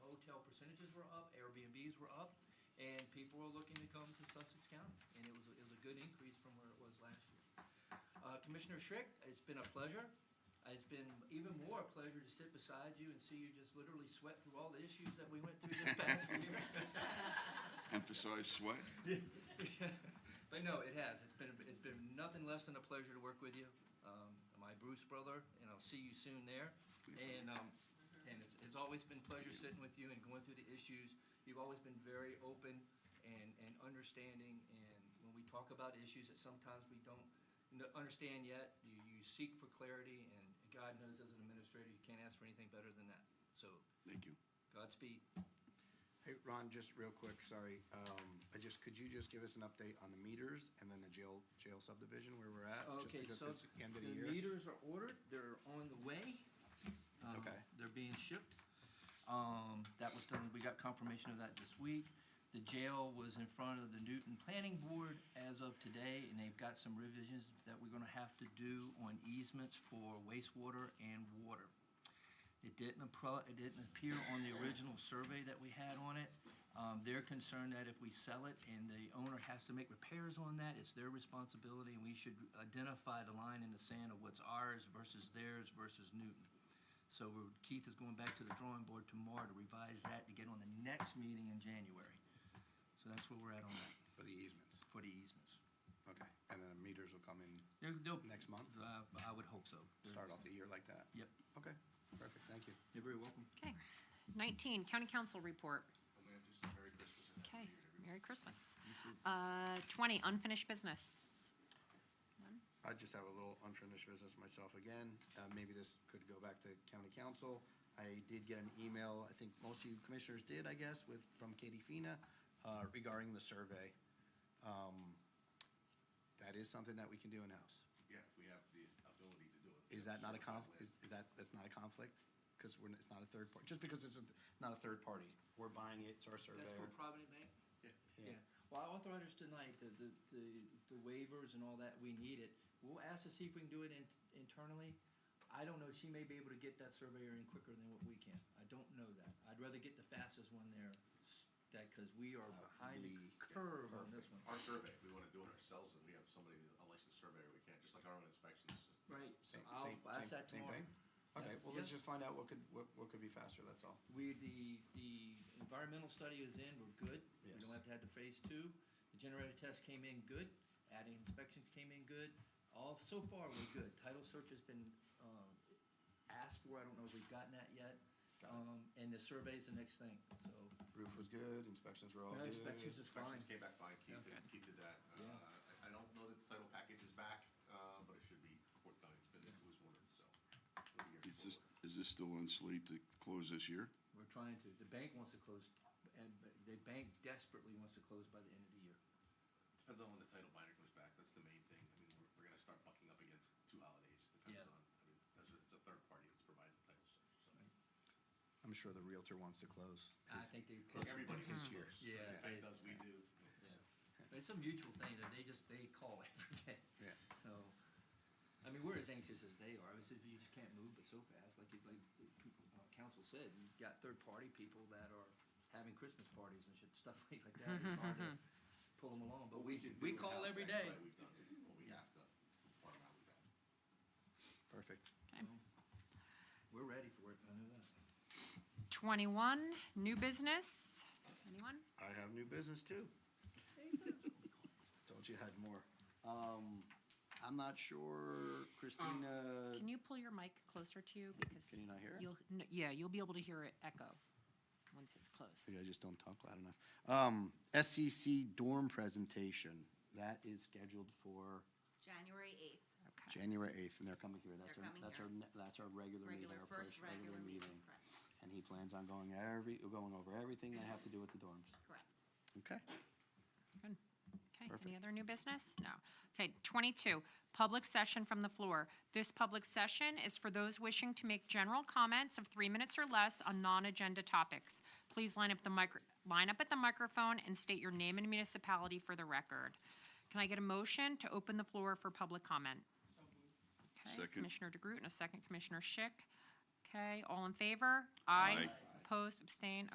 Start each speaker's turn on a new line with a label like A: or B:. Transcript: A: percentages were up, Airbnbs were up, and people were looking to come to Sussex County, and it was, it was a good increase from where it was last year. Uh, Commissioner Schrick, it's been a pleasure. It's been even more a pleasure to sit beside you and see you just literally sweat through all the issues that we went through this past year.
B: Emphasize sweat.
A: But no, it has. It's been, it's been nothing less than a pleasure to work with you. Um, my Bruce brother, and I'll see you soon there. And, um, and it's, it's always been a pleasure sitting with you and going through the issues. You've always been very open and, and understanding, and when we talk about issues that sometimes we don't kn- understand yet, you, you seek for clarity, and God knows as an administrator, you can't ask for anything better than that. So
B: Thank you.
A: Godspeed.
C: Hey, Ron, just real quick, sorry. Um, I just, could you just give us an update on the meters and then the jail, jail subdivision where we're at? Just
A: Okay,
C: because
A: so
C: it's the End of the
A: The
C: year.
A: meters are ordered, they're on the way. Um,
C: Okay.
A: They're being shipped. Um, that was done, we got confirmation of that this week. The jail was in front of the Newton Planning Board as of today, and they've got some revisions that we're gonna have to do on easements for wastewater and water. It didn't appro, it didn't appear on the original survey that we had on it. Um, they're concerned that if we sell it and the owner has to make repairs on that, it's their responsibility, and we should identify the line in the sand of what's ours versus theirs versus Newton. So we're- Keith is going back to the drawing board tomorrow to revise that to get on the next meeting in January. So that's where we're at on that,
C: For the easements,
A: for the easements.
C: okay. And then the meters will come in,
A: They're- they'll-
C: Next month?
A: Uh, I would hope so.
C: start off the year like that?
A: Yep,
C: Okay, perfect, thank you.
A: you're very welcome.
D: Okay. Nineteen, county council report.
E: Oh, man, just Merry Christmas and
D: Okay,
E: Happy New Year
D: Merry
E: to everyone.
D: Christmas. Uh, twenty, unfinished business.
C: I just have a little unfinished business myself again. Uh, maybe this could go back to county council. I did get an email, I think most of you commissioners did, I guess, with, from Katie Fina, uh, regarding the survey. Um, that is something that we can do in-house.
E: Yeah, if we have the ability to do it.
C: Is that not a
E: Sure,
C: conf, is, is that, that's not a conflict? Because we're, n- it's not a third party, just because it's with- not a third party, we're buying it, it's our
A: That's for
C: surveyor.
A: Provident Bank?
E: Yeah.
A: Yeah, well, I authorized us tonight, the, the, the- the waivers and all that, we need it. We'll ask to see if we can do it in, internally. I don't know, she may be able to get that surveyor in quicker than what we can. I don't know that. I'd rather get the fastest one there, s- that, cause we are behind the
C: Uh, we-
A: curve on this one.
E: Our survey, if we wanna do it ourselves and we have somebody, a licensed surveyor, we can't, just like our own inspections.
A: Right, so
C: Same-
A: I'll
C: same-
A: ask
C: same-
A: that
C: same
A: tomorrow.
C: thing? Okay, well, let's
A: Yeah.
C: just find out what could, what, what could be faster, that's all.
A: We, the, the environmental study is in, we're good. We
C: Yes.
A: don't have to have the phase two. The generator test came in good, adding inspections came in good. All, so far, we're good. Title search has been, um, asked for, I don't know if we've gotten that yet.
C: Got it.
A: Um, and the survey's the next thing, so,
C: Roof was good, inspections were all
A: No,
C: good.
A: inspections is fine.
E: Inspections came back fine, Keith,
A: Okay.
E: did- Keith did that. Uh,
A: Yeah.
E: I, I don't know that the title package is back, uh, but it should be forthcoming, it's been, it was ordered, so. we'll be here
B: Is this,
E: shortly.
B: is this still on slate to close this year?
A: We're trying to, the bank wants to close, and the bank desperately wants to close by the end of the year.
E: Depends on when the title binder comes back, that's the main thing. I mean, we're, we're gonna start bucking up against two holidays, depends
A: Yeah.
E: on, I mean, that's, it's a third party that's providing the title search, so.
C: I'm sure the realtor wants to close.
A: I
C: his-
A: think they
C: his-
A: close.
E: Everybody
C: his
E: this year.
C: years.
A: Yeah.
E: Bank does, we do.
A: Yeah. It's a mutual thing that they just, they call every day.
C: Yeah.
A: So, I mean, we're as anxious as they are. Obviously, you just can't move but so fast. Like, you like the people, uh, council said, you've got third-party people that are having Christmas parties and shit, stuff like like that. It's hard to pull them along, but
E: What
A: we,
E: can
A: we
E: do
A: call
E: in-house,
A: every
E: that's
A: day.
E: what We've done, what we have to farm out with that.
C: Perfect.
D: Okay.
A: We're ready for it, I know that.
D: Twenty-one, new business. Anyone?
C: I have new business too. Told you I had more. Um, I'm not sure, Christina,
D: Can you pull your mic closer to Um, you because?
C: Can you not hear it?
D: You'll, no, yeah, you'll be able to hear it echo once it's close.
C: Maybe I just don't talk loud enough. Um, SCC dorm presentation, that is scheduled for
F: January eighth,
D: Okay.
C: January eighth, and they're coming here. That's
F: They're
C: our,
F: coming
C: that's
F: here.
C: our, ne- that's our regular meeting,
F: regular,
C: our
F: first
C: first regular meeting.
F: correct,
C: And he plans on going every, going over everything they have to do with the dorms.
F: correct.
C: Okay.
D: Good. Okay, any
C: Perfect.
D: other new business? No. Okay, 22, public session from the floor. This public session is for those wishing to make general comments of three minutes or less on non-agenda topics. Please line up the micro, line up at the microphone and state your name and municipality for the record. Can I get a motion to open the floor for public comment? Okay,
B: Second.
D: Commissioner DeGroot and a second Commissioner Schick. Okay, all in favor?
B: Aye.
D: Opposed, abstain.